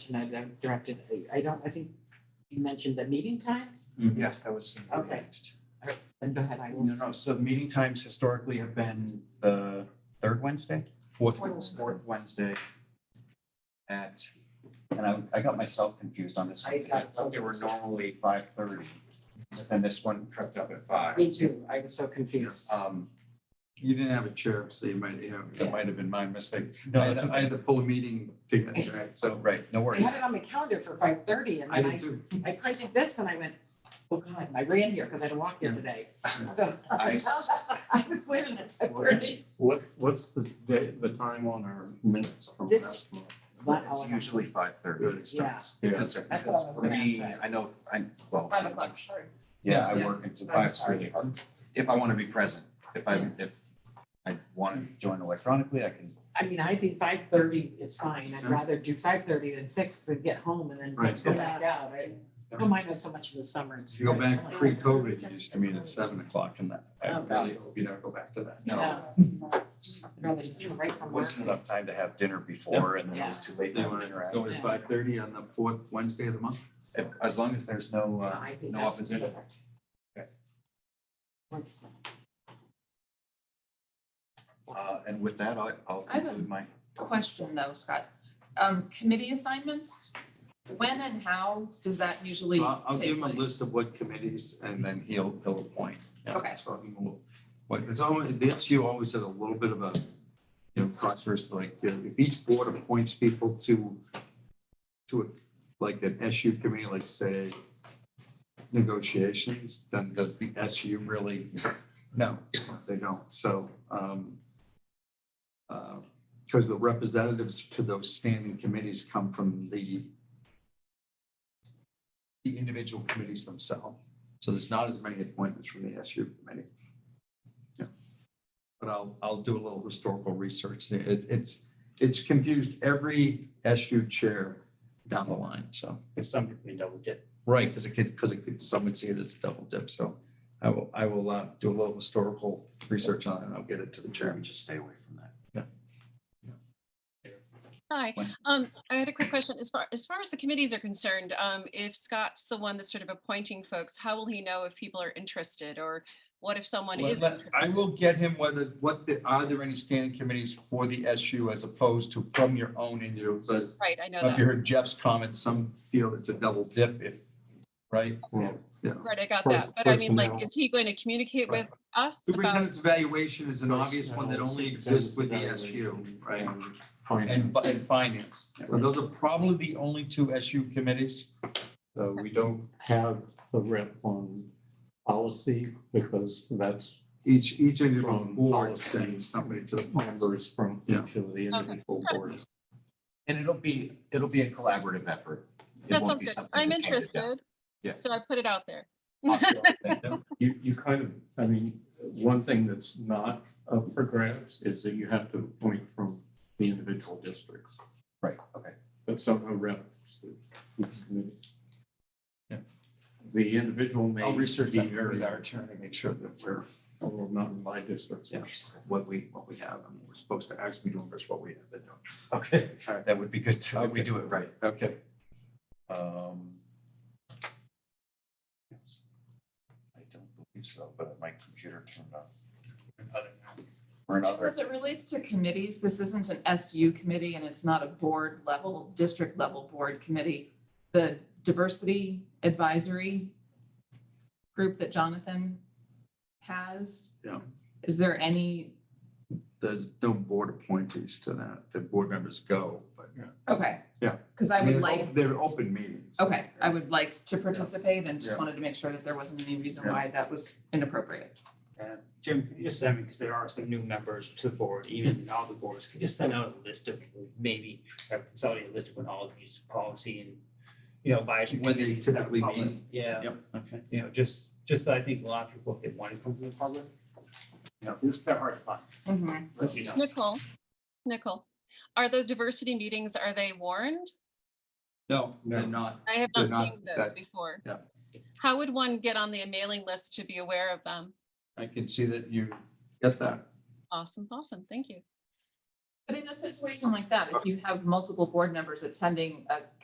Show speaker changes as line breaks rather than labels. question I I directed, I- I don't, I think you mentioned the meeting times?
Mm-hmm.
Yeah, that was. gonna be
Okay.
next.
Then go ahead, I will.
No, no, so the meeting times historically have been the third Wednesday?
Fourth
Fourth Wednesday.
Fourth Wednesday. At,
And I, I got myself confused on this one.
I
'cause
got
thought They were normally five thirty, but then this one crept up at five.
Me too, I was so confused.
Um,
You didn't have a chair, so you might, you know, that might have been my mistake.
no,
I had
that's,
to- I had to pull a meeting ticket, right,
so,
so
right, no
I
worries.
had it on my calendar for five thirty and
I
then I,
did too.
I printed this and I went, oh God, I ran here because I didn't walk here today. So
I
I
s-
was waiting at five thirty.
What, what's the day, the time on our minutes from
This-
last month?
It's usually five thirty it starts.
Yeah.
Because
That's what I was
for
gonna
me,
say.
I know, I, well.
Five o'clock, sorry.
Yeah, I
Yeah.
work until
Five
five, it's really hard. If I want to be present, if I, if I want to join electronically, I can,
I mean, I think five thirty is fine. I'd
Yeah.
rather do five thirty than six because I'd get home and then
Right.
go back out. I
Yeah.
don't mind that so much in the summer. It's
If you go
really
back
fun.
pre-COVID, you used to meet at seven o'clock and that, I
Oh,
really hope you never go back to that.
no.
Yeah. I'd rather just do it right from work.
wasn't enough time to have dinner before and then it was too late to
They
have
want
dinner
to
after.
go
Yeah.
at five thirty on the fourth Wednesday of the month?
If, as long as there's no, uh,
I think
no
that's
opposition.
perfect.
Okay.
Wonderful.
uh, and with that, I, I'll
I have a-
conclude my.
Question though, Scott, um, committee assignments, when and how does that usually
So
take
I'll, I'll give him a
place?
list of what committees and then he'll, he'll appoint. Yeah,
Okay.
So he will, what, it's always, the SU always has a little bit of a, you know, process, like, you know, if each board appoints people to, to, a- like, an SU committee, like, say, negotiations, then does the SU really? No, they don't, so, um, uh, because the representatives to those standing committees come from the the individual committees themselves. So there's not as many appointments from the SU committee. Yeah. But I'll, I'll do a little historical research. It, it's, it's confused every SU chair down the line, so.
If somebody we double dip.
Right, because it could, because it could, some would see it as double dip, so I will, I will uh, do a little historical research on it and I'll get it to the chairman.
Just stay away from that.
Hi,
When-
um, I had a quick question. As far, as far as the committees are concerned, um, if Scott's the one that's sort of appointing folks, how will he know if people are interested or what if someone
Well,
is?
let- I
interested?
will get him whether, what, the- are there any standing committees for the SU as opposed to from your own individual? So it's-
Right, I know
If
that.
you heard Jeff's comment, some feel it's a double dip if, right?
Right, I got
Pers-
that. But I mean, like,
personnel.
is he going to communicate
Right.
with us about?
Superintendent's evaluation is an obvious one that only exists with the SU, right? And, fi- and finance. So Those are probably the only two SU committees.
So we don't have the rep on policy because that's
Each, each individual
From
board
policy.
sends somebody to the board.
members from each of the individual boards.
And it'll be, it'll be a collaborative effort. It
That
won't
sounds
be
good.
something
I'm
that's handed down.
interested.
Yeah.
So I put it out there.
Awesome. Thank you.
You, you kind of, I mean, one thing that's not up for grabs is that you have to appoint from the individual districts,
Right, okay.
but somehow rep.
Yeah.
The individual may.
I'll research
be
that
very-
with our attorney, make sure that we're,
Although not in my district. so-
yes, what we, what we have, and we're supposed to actually do versus what we have. been doing. Oh,
Okay, all right, that would be good too, that we
Okay.
do it right.
Okay.
Um. I don't believe so, but my computer turned on. Or
Just
another,
as it relates to committees, this isn't an SU committee and it's not a board level, district level board committee. The diversity advisory group that Jonathan has.
Yeah.
Is there any,
There's no board appointees to that. The board members go, but.
okay.
Yeah.
Because I
mean,
would
it's
like,
op- They're open meetings.
okay, I would like to participate and just
Yeah.
wanted to make sure that there wasn't any reason
Yeah.
why that was inappropriate.
Uh, Jim, can you just send me, because there are some new members to the board, even all the boards, can you just send out a list of maybe, or consolidate a list of when all of these policy and, you know, advisory.
When they
committees are
typically
public?
meet.
Yeah,
Yep, okay.
you know, just, just so I think a lot of people, if they want to come to the public, you know, it's kind of hard to find,
Mhm.
as you know.
Nicole, Nicole, are those diversity meetings, are they warned?
No, they're not.
I have
They're
not
not-
seen those
that-
before.
yeah.
How would one get on the mailing list to be aware of them?
I can see that you get that.
Awesome, awesome. Thank you.
But in a situation like that, if you have multiple board members attending a